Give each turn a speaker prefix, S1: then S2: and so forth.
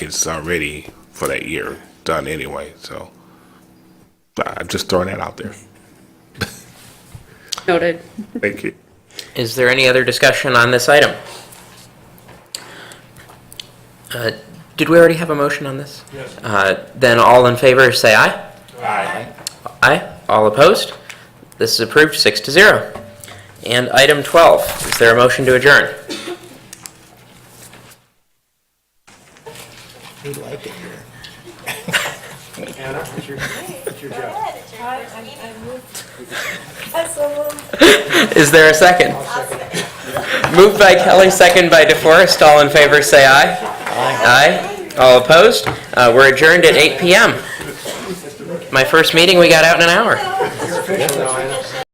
S1: it's already for that year done anyway. So I- I'm just throwing that out there.
S2: Noted.
S1: Thank you.
S3: Is there any other discussion on this item? Uh, Did we already have a motion on this? Yes. Then all in favor, say aye. Aye. Aye. All opposed? This is approved, six to zero. And item 12, is there a motion to adjourn?
S4: We like it here.
S5: Anna, it's your, it's your job.
S6: I, I moved. I so moved.
S3: Is there a second? Moved by Kelly, second by DeForest. All in favor, say aye. Aye. Aye. All opposed? Uh, We're adjourned at 8 PM. My first meeting, we got out in an hour.
S5: You're official now, Anna.